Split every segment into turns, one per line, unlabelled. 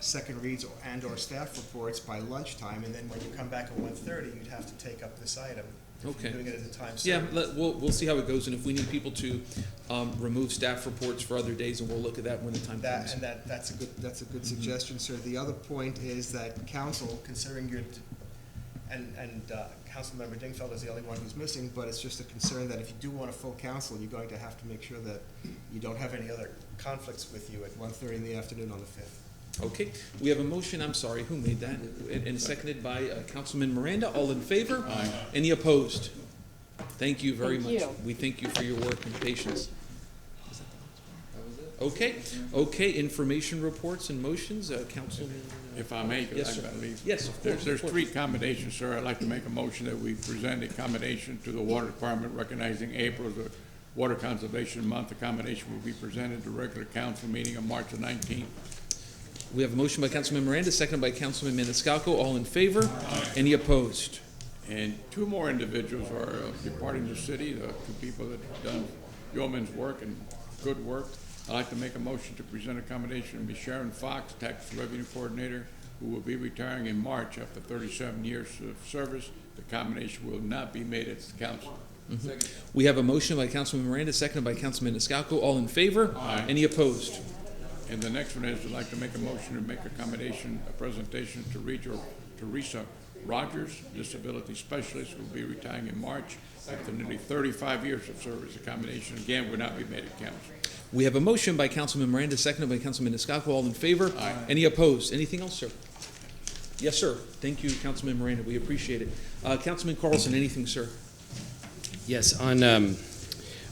second reads or- and or staff reports by lunchtime, and then when you come back at 1:30, you'd have to take up this item. if you're
Okay.
Doing it at the time.
Yeah,
certain.
let, we'll, we'll see how it goes, and if we need people to, um, remove staff reports for other days, and we'll look at that Mm-hmm. when the time
That,
comes.
and that, that's a good, that's a good suggestion, sir. The other point is that council, considering your, and, and uh, Councilmember Dingfeld is the only one who's missing, but it's just a concern that if you do want a full council, you're going to have to make sure that you don't have any other conflicts with you at 1:30 in the afternoon on the 5th.
Okay, we have a motion, I'm sorry, who made that? And, and seconded by uh, Councilman Miranda, all in favor? Aye. Any opposed? Thank you very much.
Thank you.
We thank you for your work and patience. Okay, okay, information reports and motions, uh, Councilman, uh,
If I may,
Yes,
because
sir.
I've got to leave.
Yes, of course,
There's,
of
there's
course.
three accommodations, sir. I'd like to make a motion that we present a commendation to the Water Department recognizing April as the Water Conservation Month. The commendation will be presented at the regular council meeting on March the nineteenth.
we have a motion by Councilman Miranda, seconded by Councilman Maniscalco, all in favor? Any opposed?
And two more individuals are uh, departing the city, the two people that have done yeoman's work and good work. I'd like to make a motion to present a commendation to Ms. Sharon Fox, Tax Revenue Coordinator, who will be retiring in March after thirty-seven years of service. The commendation will not be made at the council.
We have a motion by Councilman Miranda, seconded by Councilman Maniscalco, all in favor?
Aye.
Any opposed?
And the next one is, I'd like to make a motion to make accommodation, a presentation to Regis- Teresa Rogers, disability specialist, who will be retiring in March after nearly thirty-five years of service. Accommodation, again, would not be made at council.
We have a motion by Councilman Miranda, seconded by Councilman Maniscalco. All in favor?
Aye.
Any opposed? Anything else, sir? Yes, sir. Thank you, Councilman Miranda. We appreciate it. Uh, Councilman Carlson, anything, sir?
Yes, on, um,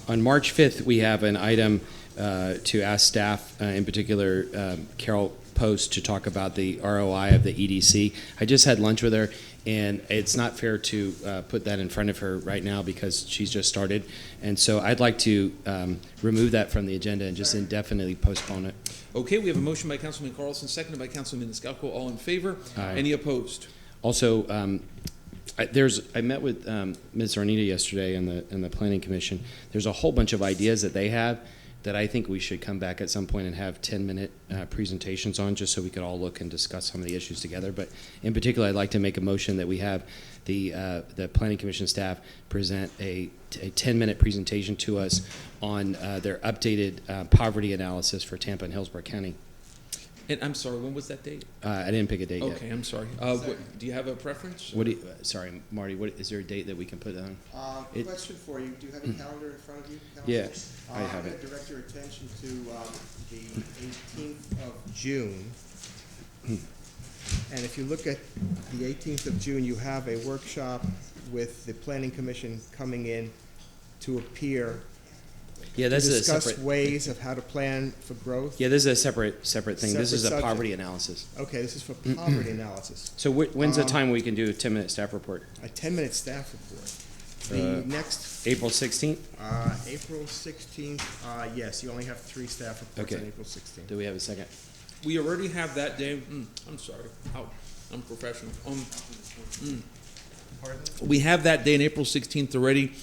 on March 5th, we have an item uh, to ask staff, uh, in particular um, Carol Post, to talk about the ROI of the EDC. I just had lunch with her, and it's not fair to uh, put that in front of her right now because she's just started. And so I'd like to um, remove that from the agenda and just indefinitely postpone it.
Okay, we have a motion by Councilman Carlson, seconded by Councilman Maniscalco. All in favor?
Aye.
Any opposed?
Also, um, I, there's, I met with um, Ms. Arnita yesterday in the, in the Planning Commission. There's a whole bunch of ideas that they have that I think we should come back at some point and have 10-minute uh, presentations on, just so we could all look and discuss some of the issues together. But in particular, I'd like to make a motion that we have the, uh, the Planning Commission staff present a, a 10-minute presentation to us on uh, their updated uh, poverty analysis for Tampa and Hillsborough County.
And I'm sorry, when was that date?
Uh, I didn't pick a date
Okay,
yet.
I'm sorry. Uh, what- Do you have a preference?
What do you, uh, sorry, Marty, what, is there a date that we can put on?
Uh,
It-
Question for you, do you have a calendar in front of you? Council?
Yeah,
Uh,
I
I'm
have it.
going to direct your attention to um, the 18th of June.
Hmm.
And if you look at the 18th of June, you have a workshop with the Planning Commission coming in to appear,
Yeah,
to
this is a
discuss
separate.
ways of how to plan for growth.
Yeah, this is a separate separate thing. this
Separate
is a
subject.
poverty analysis.
Okay, this is for poverty analysis.
So wh- when's
Um,
the time we can do a ten minute staff report?
a 10-minute staff report. The
Uh,
next,
April sixteenth.
uh, April 16th, uh, yes, you only have three staff reports on
Okay.
April 16th.
Do we have a second?
We already have that day. Mm, I'm sorry. Ow, I'm professional. Um,
Pardon?
we have that day on April 16th already,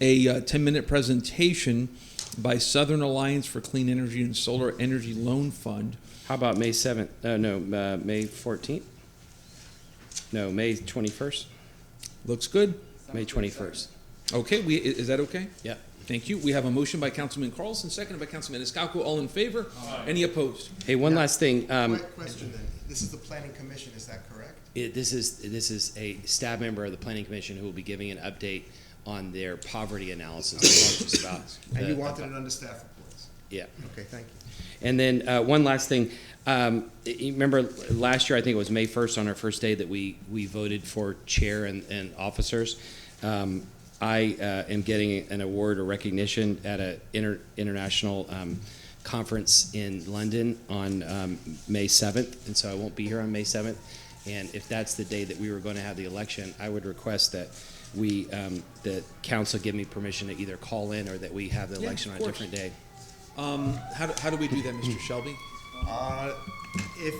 a uh, 10 minute presentation by Southern Alliance for Clean Energy and Solar Energy Loan Fund.
How about May seventh? Uh, no, uh, May fourteenth. No, May twenty first.
Looks good.
May twenty first.
Okay, we, i- is that okay?
Yeah.
Thank you. We have a motion by Councilman Carlson, seconded by Councilman Escalco. All in favor? Any opposed?
Hey, one last thing. Um,
Quick question then, this is the Planning Commission, is that correct?
it, this is this is a staff member of the planning commission who will be giving an update on their poverty analysis. They talked to us about
And you
the-
wanted it under staff reports?
yeah.
Okay, thank you.
And then uh, one last thing. Um, you remember last year, I think it was May 1st on our first day that we, we voted for chair and, and officers. Um, I uh, am getting an award or recognition at an inter- international um, conference in London on um, May 7th, and so I won't be here on May 7th. And if that's the day that we were going to have the election, I would request that we, um, that council give me permission to either call in or that we have the
Yeah,
election
of
on a
course.
different day.
Um, how, do, how do we do that, Mr. Shelby?
Uh, If,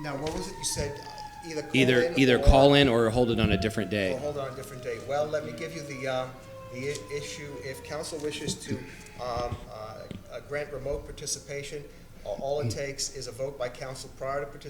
now, what was it you said, uh, either call in
either either call in or hold it on a different
Or
day.
hold on a different day. Well, let me give you the, um, the i- issue, if council wishes to um, uh, uh, grant remote participation, a- all it takes is a vote by council prior to participation